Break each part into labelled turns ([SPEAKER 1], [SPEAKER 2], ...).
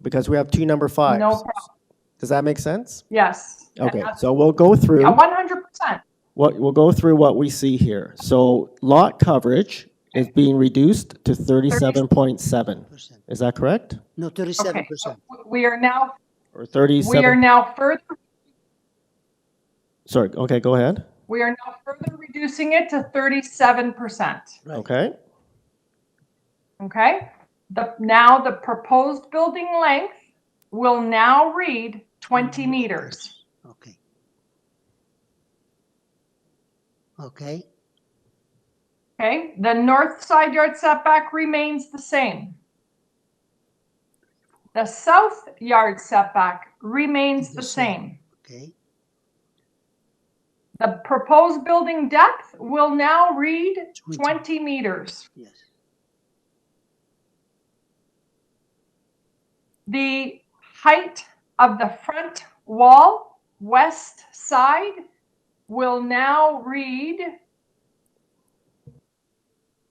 [SPEAKER 1] because we have two number fives.
[SPEAKER 2] No problem.
[SPEAKER 1] Does that make sense?
[SPEAKER 2] Yes.
[SPEAKER 1] Okay, so we'll go through.
[SPEAKER 2] Yeah, one hundred percent.
[SPEAKER 1] what, we'll go through what we see here. So lot coverage is being reduced to thirty-seven point seven.
[SPEAKER 3] percent.
[SPEAKER 1] Is that correct?
[SPEAKER 3] No,
[SPEAKER 2] Okay.
[SPEAKER 3] thirty-seven percent.
[SPEAKER 2] We are now,
[SPEAKER 1] Or
[SPEAKER 2] we are
[SPEAKER 1] thirty-seven,
[SPEAKER 2] now further,
[SPEAKER 1] sorry, okay, go ahead.
[SPEAKER 2] we are now further reducing it to thirty-seven percent.
[SPEAKER 3] Right.
[SPEAKER 1] Okay,
[SPEAKER 2] Okay? The, now the proposed building length will now read twenty meters.
[SPEAKER 3] Okay. Okay,
[SPEAKER 2] Okay? The north side yard setback remains the same. The south yard setback remains the
[SPEAKER 3] The
[SPEAKER 2] same.
[SPEAKER 3] same. okay,
[SPEAKER 2] The proposed building depth will now read
[SPEAKER 3] 20.
[SPEAKER 2] twenty meters.
[SPEAKER 3] yes.
[SPEAKER 2] The height of the front wall, west side, will now read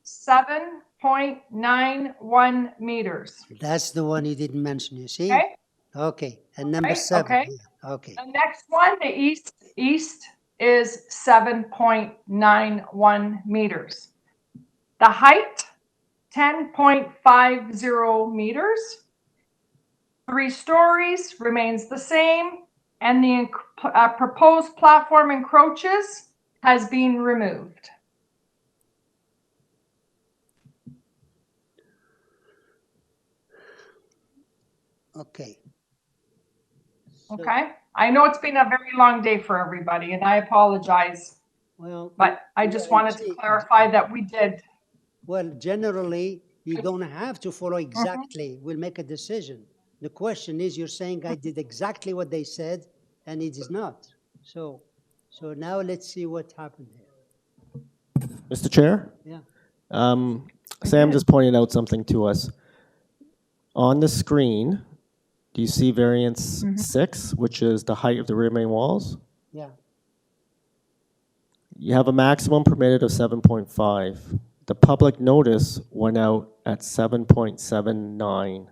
[SPEAKER 2] seven point nine one meters.
[SPEAKER 3] That's the one you didn't mention, you see?
[SPEAKER 2] Okay.
[SPEAKER 3] Okay, and number
[SPEAKER 2] Okay,
[SPEAKER 3] seven,
[SPEAKER 2] okay.
[SPEAKER 3] yeah, okay,
[SPEAKER 2] The next one, the east, east is seven point nine one meters. The height, ten point five zero meters. Three stories remains the same, and the enc- uh, proposed platform encroaches has been removed.
[SPEAKER 3] okay. So,
[SPEAKER 2] Okay, I know it's been a very long day for everybody, and I apologize,
[SPEAKER 3] Well,
[SPEAKER 2] but I just wanted to clarify that we did.
[SPEAKER 3] well, generally, you don't have to follow
[SPEAKER 2] Mm-hmm.
[SPEAKER 3] exactly, we'll make a decision. The question is, you're saying I did exactly what they said, and it is not. So, so now let's see what happened here.
[SPEAKER 1] Mr. Chair?
[SPEAKER 3] Yeah,
[SPEAKER 1] Um, Sam just pointed out something to us. On the screen, do you see variance six, which is the height of the rear main walls?
[SPEAKER 3] Mm-hmm. yeah,
[SPEAKER 1] You have a maximum permitted of seven point five. The public notice went out at seven point seven nine.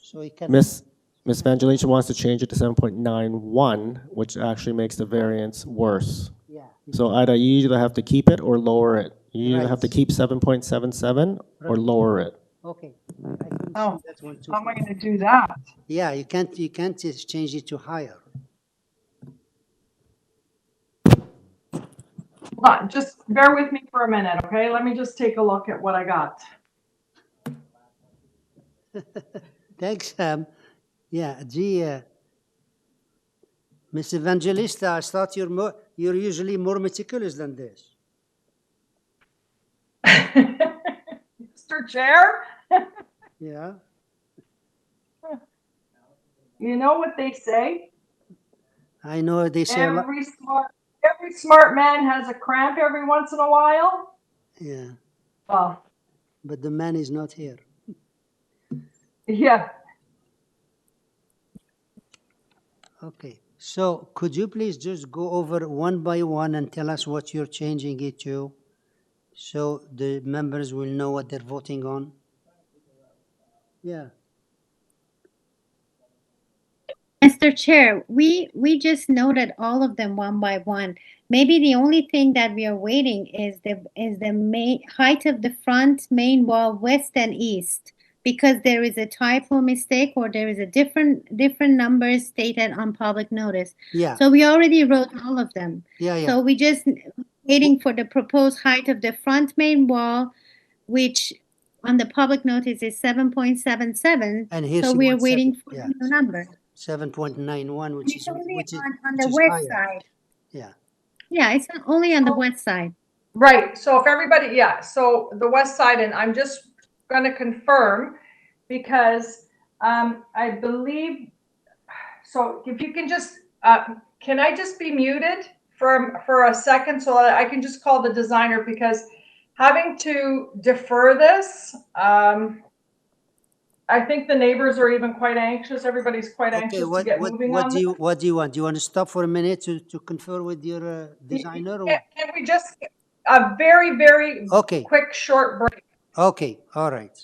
[SPEAKER 3] so you can.
[SPEAKER 1] Miss, Miss Vangelisha wants to change it to seven point nine one, which actually makes the variance worse.
[SPEAKER 3] Yeah,
[SPEAKER 1] So either you either have to keep it or lower it. You either have to
[SPEAKER 3] Right.
[SPEAKER 1] keep seven point seven seven or
[SPEAKER 3] Right.
[SPEAKER 1] lower it.
[SPEAKER 3] okay. I can see
[SPEAKER 2] Oh,
[SPEAKER 3] that one too.
[SPEAKER 2] How am I gonna do that?
[SPEAKER 3] Uh, Yeah, you can't, you can't just change it to higher.
[SPEAKER 2] Hold on, just bear with me for a minute, okay? Let me just take a look at what I got.
[SPEAKER 3] Thanks, Sam. Yeah, gee, uh, Miss Evangelista, I thought you're more, you're usually more meticulous than this.
[SPEAKER 2] Mr. Chair,
[SPEAKER 3] Yeah,
[SPEAKER 2] you know what they say?
[SPEAKER 3] I know they say a lot.
[SPEAKER 2] Every smart, every smart man has a cramp every once in a while.
[SPEAKER 3] Yeah,
[SPEAKER 2] Well,
[SPEAKER 3] but the man is not here.
[SPEAKER 2] yeah,
[SPEAKER 3] Okay, so could you please just go over one by one and tell us what you're changing it to? So the members will know what they're voting on? Yeah,
[SPEAKER 4] Mr. Chair, we, we just noted all of them one by one. Maybe the only thing that we are waiting is the, is the main, height of the front main wall, west and east. Because there is a typo mistake or there is a different, different numbers stated on public notice.
[SPEAKER 3] yeah,
[SPEAKER 4] So we already wrote all of them.
[SPEAKER 3] yeah, yeah.
[SPEAKER 4] So we just waiting for the proposed height of the front main wall, which on the public notice is seven point seven seven.
[SPEAKER 3] And here's
[SPEAKER 4] So
[SPEAKER 3] the
[SPEAKER 4] we are
[SPEAKER 3] one,
[SPEAKER 4] waiting
[SPEAKER 3] seven-
[SPEAKER 4] for
[SPEAKER 3] yeah.
[SPEAKER 4] the new number.
[SPEAKER 3] Seven point nine one, which is,
[SPEAKER 4] It's only
[SPEAKER 3] which is,
[SPEAKER 4] on, on
[SPEAKER 3] which
[SPEAKER 4] the
[SPEAKER 3] is
[SPEAKER 4] west
[SPEAKER 3] higher.
[SPEAKER 4] side.
[SPEAKER 3] yeah,
[SPEAKER 4] Yeah, it's on- only on the
[SPEAKER 2] Oh.
[SPEAKER 4] west side.
[SPEAKER 2] right. So if everybody, yeah, so the west side, and I'm just gonna confirm because um, I believe, so if you can just, uh, can I just be muted for, for a second so that I can just call the designer because having to defer this, um, I think the neighbors are even quite anxious. Everybody's quite
[SPEAKER 3] Okay,
[SPEAKER 2] anxious to
[SPEAKER 3] what,
[SPEAKER 2] get
[SPEAKER 3] what,
[SPEAKER 2] moving
[SPEAKER 3] what
[SPEAKER 2] on
[SPEAKER 3] do
[SPEAKER 2] this.
[SPEAKER 3] you, what do you want? Do you want to stop for a minute to, to confer with your uh, designer?
[SPEAKER 2] Can
[SPEAKER 3] or-
[SPEAKER 2] can we just, a very, very
[SPEAKER 3] Okay,
[SPEAKER 2] quick, short break?
[SPEAKER 3] okay, all right.